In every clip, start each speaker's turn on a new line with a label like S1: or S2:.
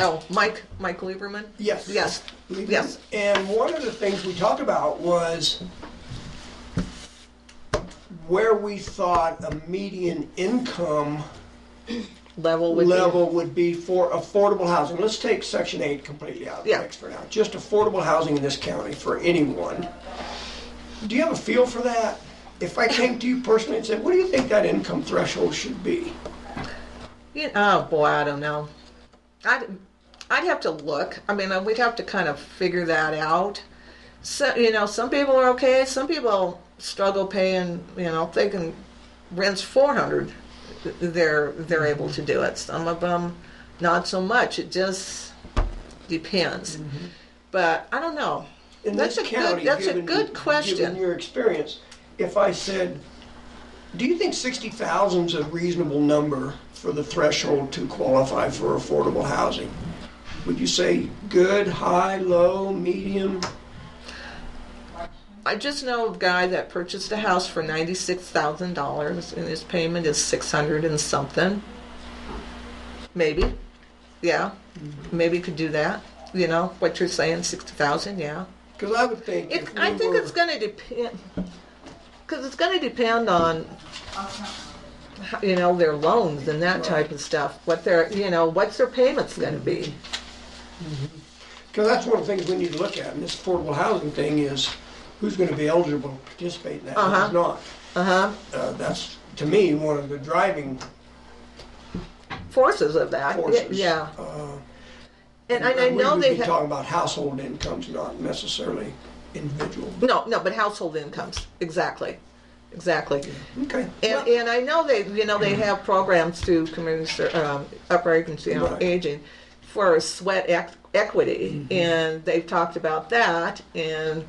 S1: Oh, Mike, Mike Lieberman?
S2: Yes.
S1: Yes, yes.
S2: And one of the things we talked about was where we thought a median income
S1: Level with.
S2: level would be for affordable housing. Let's take section eight completely out of the
S1: Yeah.
S2: mix for now. Just affordable housing in this county for anyone. Do you have a feel for that? If I came to you personally and said, what do you think that income threshold should be?
S1: You- Oh, boy, I don't know. I'd, I'd have to look. I mean, uh, we'd have to kind of figure that out. So, you know, some people are okay. Some people struggle paying, you know, if they can rents 400, they're,
S2: Mm-hmm.
S1: they're able to do it. Some of them, not so much. It just depends. But I don't know.
S2: Mm-hmm. in
S1: That's
S2: this
S1: a good-
S2: county,
S1: that's a
S2: given-
S1: good question.
S2: Given your experience, if I said, do you think sixty thousand's a reasonable number for the threshold to qualify for affordable housing? Would you say good, high, low, medium?
S1: I just know a guy that purchased a house for ninety-six thousand dollars, and his payment is six hundred and something. Maybe, yeah,
S2: Mm-hmm.
S1: maybe could do that. You know what you're saying, sixty thousand, yeah.
S2: Because I would think
S1: It,
S2: if
S1: I
S2: we
S1: think
S2: were-
S1: it's going to depend, because it's going to depend on, how- you know, their loans and that type of stuff. What their, you know, what's their payments going to be?
S2: Mm-hmm. Because that's one of the things we need to look at in this affordable housing thing is who's going to be eligible to participate in that and
S1: Uh-huh.
S2: who's not.
S1: Uh huh.
S2: Uh, That's, to me, one of the driving
S1: Forces of that. y-
S2: forces.
S1: Yeah.
S2: uh,
S1: And, I I
S2: We
S1: know
S2: would
S1: they
S2: be
S1: have.
S2: talking about household incomes, not necessarily individual.
S1: No, no, but household incomes, exactly, exactly.
S2: Okay.
S1: And, and I know they, you know,
S2: Mm.
S1: they have programs through community, ser- um, upper agency on
S2: Right. Mm-hmm.
S1: aging for sweat ec- equity, and they've talked about that, and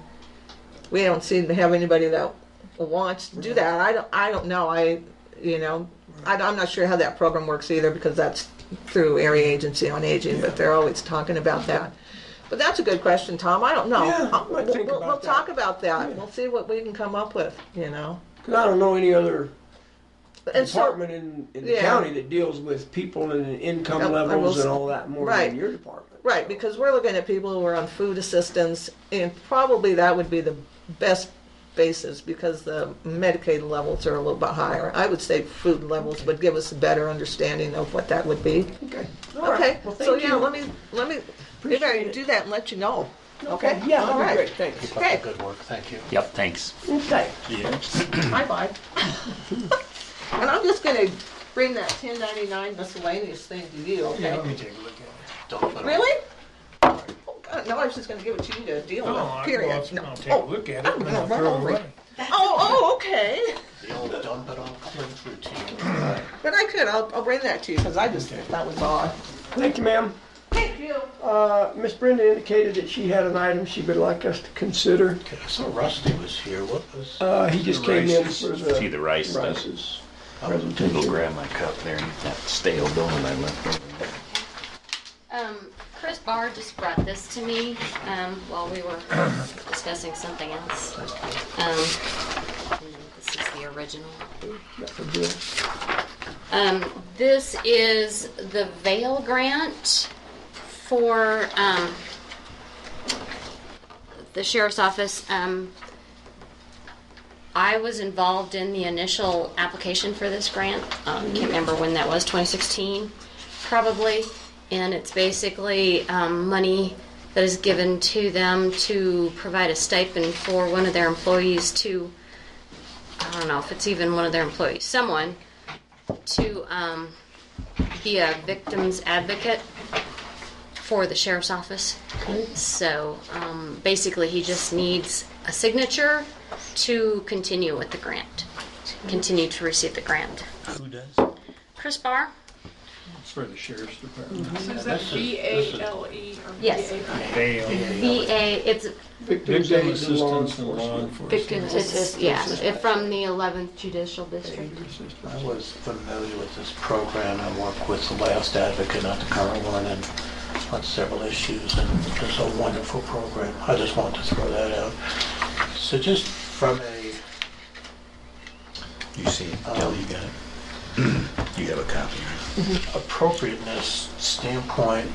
S1: we don't seem to have anybody that wants to do that. I don't, I don't know, I, you know, I, am not sure how that program works either, because that's through area agency on aging,
S2: Yeah.
S1: but they're always talking about that. But that's a good question, Tom, I don't know.
S2: Yeah,
S1: Uh,
S2: I
S1: we'll-
S2: think
S1: we'll-
S2: about
S1: We'll
S2: that.
S1: talk about that,
S2: Yeah.
S1: we'll see what we can come up with, you know?
S2: Because I don't know any other
S1: And so-
S2: department in, in the
S1: yeah.
S2: county that deals with people and
S1: Oh, I
S2: income
S1: will
S2: levels
S1: s-
S2: and all that more
S1: right.
S2: than your department.
S1: Right, because we're looking at people who are on food assistance, and probably that would be the best basis because the Medicaid levels are a little bit higher. I would say food levels would give us a better understanding of what that would be.
S2: Okay. All right.
S1: Okay,
S2: Well,
S1: so
S2: thank
S1: yeah,
S2: you.
S1: let me, let me, maybe I
S2: Appreciate
S1: can
S2: it.
S1: do that and let you know.
S2: Okay. Yeah,
S1: All
S2: that'd be
S1: right.
S2: great. Thanks.
S1: Okay,
S3: Good work, thank you.
S4: Yep, thanks.
S2: Okay.
S1: bye bye. And I'm just gonna bring that ten ninety-nine miscellaneous thing to you,
S3: Let me
S1: okay?
S3: take a look at it. Don't put it-
S1: Really? Oh, God, no, I was just gonna give it to you to deal
S5: No, I-
S1: with, period.
S5: well, if-
S1: No.
S5: I'll take a
S1: Oh.
S5: look
S1: I'm
S5: at it and then I'll
S1: gonna
S5: throw
S1: run
S5: it
S1: over
S5: away.
S1: Oh, oh, okay.
S3: The old dump it all cleanse routine.
S1: But I could. I'll, I'll bring that to you because I just think that was odd.
S2: Thank you, ma'am.
S1: Thank you.
S2: Uh, Miss Brenda indicated that she had an item she would like us to consider.
S3: Okay, I saw Rusty was here, what was?
S2: Uh, he just came in
S4: rice.
S2: for
S4: See the
S2: the
S4: rice stuff.
S2: rices.
S4: I'll grab my cup there and that stale donut I left over there.
S6: Um, Chris Barr just brought this to me, um, while we were discussing something else. Um, and this is the original. Um, this is the Vail grant for, um, the sheriff's office, um, I was involved in the initial application for this grant. Um, can't remember when that was, 2016, probably. And it's basically um, money that is given to them to provide a stipend for one of their employees to, I don't know if it's even one of their employees, someone to um, be a victim's advocate for the sheriff's office. So um, basically, he just needs a signature to continue with the grant, to continue to receive the grant.
S3: Who does?
S6: Chris Barr?
S5: It's for the sheriff's department.
S7: Is that B A L E or B
S6: Yes.
S7: A I?
S6: VA, it's,
S2: Victims
S5: Victim
S2: aid and law
S5: assistance and law
S2: enforcement.
S5: enforcement.
S7: Victims
S6: it's,
S7: assist-
S6: it's- yeah, it- from the 11th Judicial District.
S2: Victim assistance.
S3: I was familiar with this program. I worked with the last advocate, not the current one, and on several issues, and it's a wonderful program. I just wanted to throw that out. So just from a,
S4: You see it, Kelly, you got it? You have a copy, right?
S3: appropriateness standpoint,